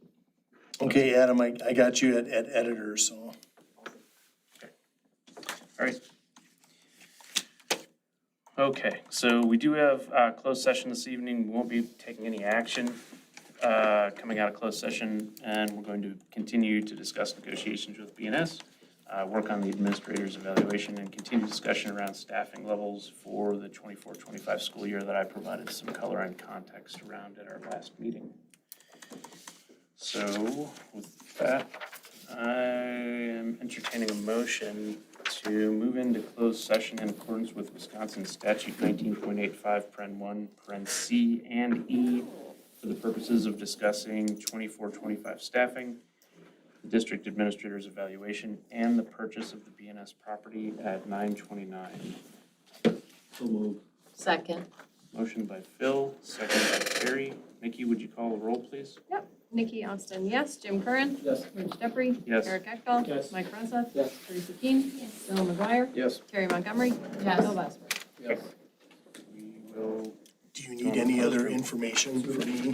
Okay, Adam, I, I got you at, at editor, so. All right. Okay, so we do have a closed session this evening. We won't be taking any action uh, coming out of closed session, and we're going to continue to discuss negotiations with BNS, uh, work on the administrator's evaluation, and continue discussion around staffing levels for the 24-25 school year that I provided some color and context around at our last meeting. So with that, I am entertaining a motion to move into closed session in accordance with Wisconsin statute nineteen point eight five, paren one, paren C and E for the purposes of discussing twenty-four, twenty-five staffing, the district administrator's evaluation, and the purchase of the BNS property at nine twenty-nine. Second. Motion by Phil, second by Terry. Nikki, would you call the roll, please? Nikki Austin, yes. Jim Curran. Yes. Rich Jeffrey. Yes. Eric Eckel. Yes. Mike Rosa. Yes. Teresa Keen. Yes. Dylan McGuire. Yes. Terry Montgomery. Yes. Bill Lesper. Yes. We will Do you need any other information for me?